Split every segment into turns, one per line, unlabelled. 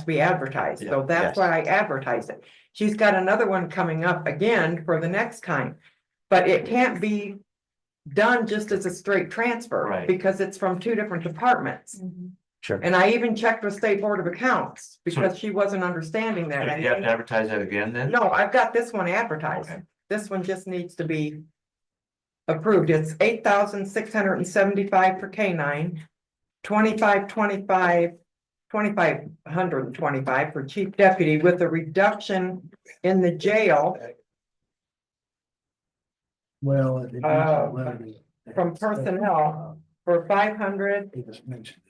to be advertised, so that's
yes.
why I advertise it. She's got another one coming up again for the next time. But it can't be done just as a straight transfer,
Right.
because it's from two different departments.
Sure.
And I even checked with State Board of Accounts, because she wasn't understanding
You
that. I
have to
think-
advertise that again then?
No, I've got this one advertised,
Okay.
this one just needs to be approved, it's eight thousand six hundred and seventy-five for K nine. Twenty-five, twenty-five, twenty-five hundred and twenty-five for chief deputy with a reduction in the jail
Well. it depends
Uh,
on whether they-
from personnel. for five hundred,
He just mentioned.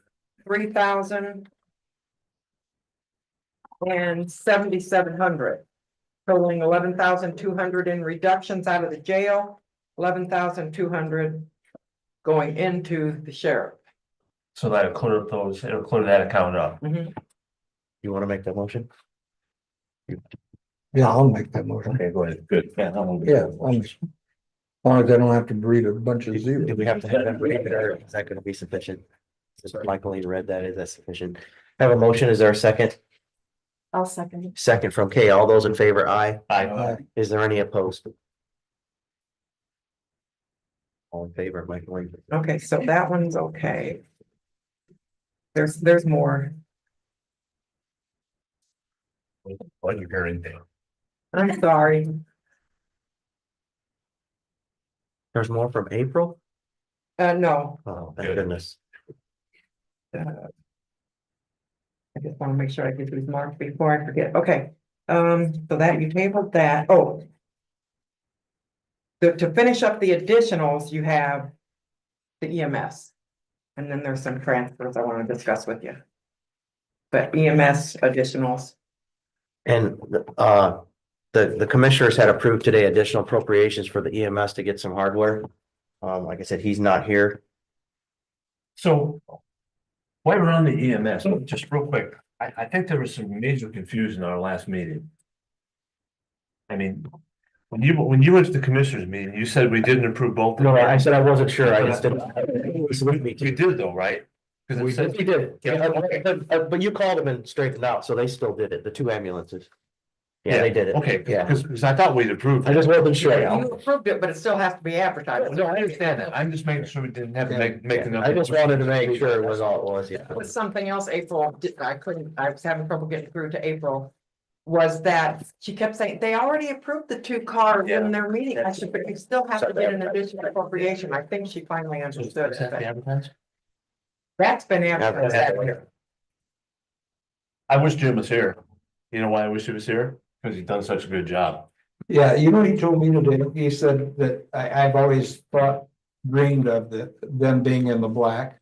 three thousand. And seventy-seven hundred, totaling eleven thousand two hundred in reductions out of the jail, eleven thousand two hundred going into the sheriff.
So that'll clear up those, it'll clear that account uh. up.
You want to make that motion? Yeah, I'll make that motion.
Okay, go ahead. Good. Yeah. that won't be-
Yeah, I'm- as long as I don't have to read a bunch of
Do do
zeros.
we have to have that read it or is that going to be sufficient? Just Michael, you read that, is that sufficient? I have a motion, is there a second?
I'll second it.
Second from Kay, all those in favor, aye.
Uh,
Aye.
Is there any opposed? All in favor, Michael, Lang.
Okay, so that one's okay. There's, there's more.
What you're hearing there.
I'm sorry.
there's more from April?
Uh, no,
Oh, thank
Good.
goodness.
I just want to make sure I get these marked before I forget. Okay, um, so that you tabled that. Oh. To, to finish up the additionals, you have the EMS. And then there's some transfers I want to discuss with you. But EMS additionals.
And uh, the, the commissioners had approved today additional appropriations for the EMS to get some hardware. Um, like I said, he's not here.
So. While we're on the E EMS, just real quick, I, I think there was some major confusion in our last meeting. I mean, when you, when you went to the commissioners meeting, you said we didn't approve both.
said I wasn't sure.
I just didn't- You
We
did though, right? 'Cause it says-
did, Uh, but you called them and straightened out, so they still did it, the two ambulances. Yeah, they did it.
Okay,
Yeah.
because, because I thought we'd approved.
I just wasn't sure.
You approved it, but it still has to be advertised.
No, I understand that. I'm just making sure we didn't have to make, make
Yeah,
another.
I just wanted to make sure it was all it was, yeah.
That was something else April, did- I couldn't, I was having trouble getting through to April. Was that she kept saying, they already approved the two cars in their meeting, I should, but you still have to get an additional appropriation, I think she finally understood
Is
it,
that the
but
advertising?
that's been
Advertised.
advertised.
I wish Jim was here. You know why I wish he was here? Because he's done such a good job.
Yeah, you know, he told me today, he said that I, I've always thought, dreamed of the, them being in the black.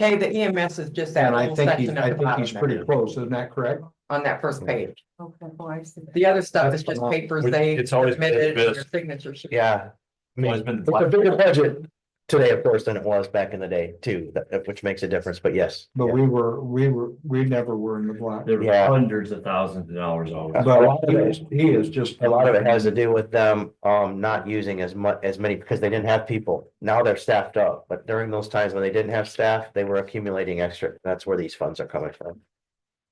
Okay, the EMS is just that
And I
little
think he's,
section
I
at the
think he's
bottom
pretty
there,
close, isn't that correct?
on that first page.
Okay, well, I see.
The other stuff is
That's
just
the one.
papers they
It's always been
submitted,
this.
your signature. sheet.
Yeah. I mean,
Always been
It's a bigger budget today, of course, than it was back in the day too, that- which makes a difference, but yes.
But we were, we were, we never were in the black.
There were
Yeah.
hundreds of thousands of dollars always.
A lot of
But he
it-
is, he is just.
A lot of it has to do with them um not using as much as many because they didn't have people. Now they're staffed up, but during those times when they didn't have staff, they were accumulating extra. That's where these funds are coming from.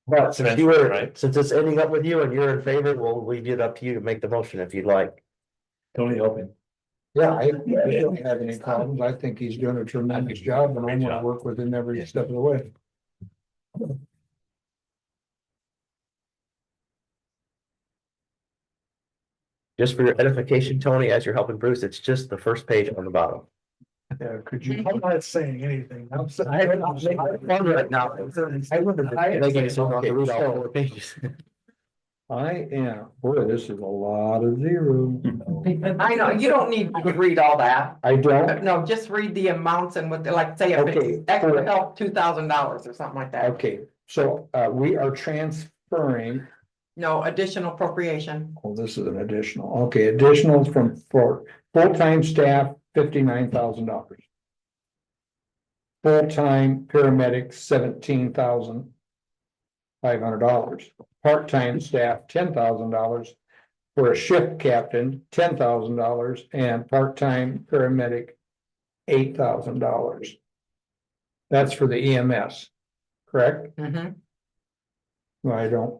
But since you were,
Right.
since it's ending up with you and you're in favor, we'll leave it up to you to make the motion if you'd like.
Tony Open.
Yeah, I, I don't have any problems. I think he's doing a tremendous job and I'm
Great
gonna
job.
work with him every step of the way.
Just for your edification, Tony, as you're helping Bruce, it's just the first page on the bottom.
Yeah, could you? I'm not saying anything. I'm sorry.
Right now.
I wonder.
They gave us all- read all four pages.
I am, boy, this is a lot of zero.
I know, you don't need to read all that,
I
but
don't,
no, just read the amounts and what, they like, say, if
Okay.
it's extra help, two thousand dollars or something like that.
okay, so uh we are transferring,
No additional appropriation.
oh, this is an additional, okay, additional from for full-time staff, fifty-nine thousand dollars. Full-time paramedic, seventeen thousand five hundred dollars, part-time staff, ten thousand dollars. For a shift captain, ten thousand dollars, and part-time paramedic, eight thousand
Mm-hmm.
E dollars. That's for the EMS, correct?
Mhm.
I don't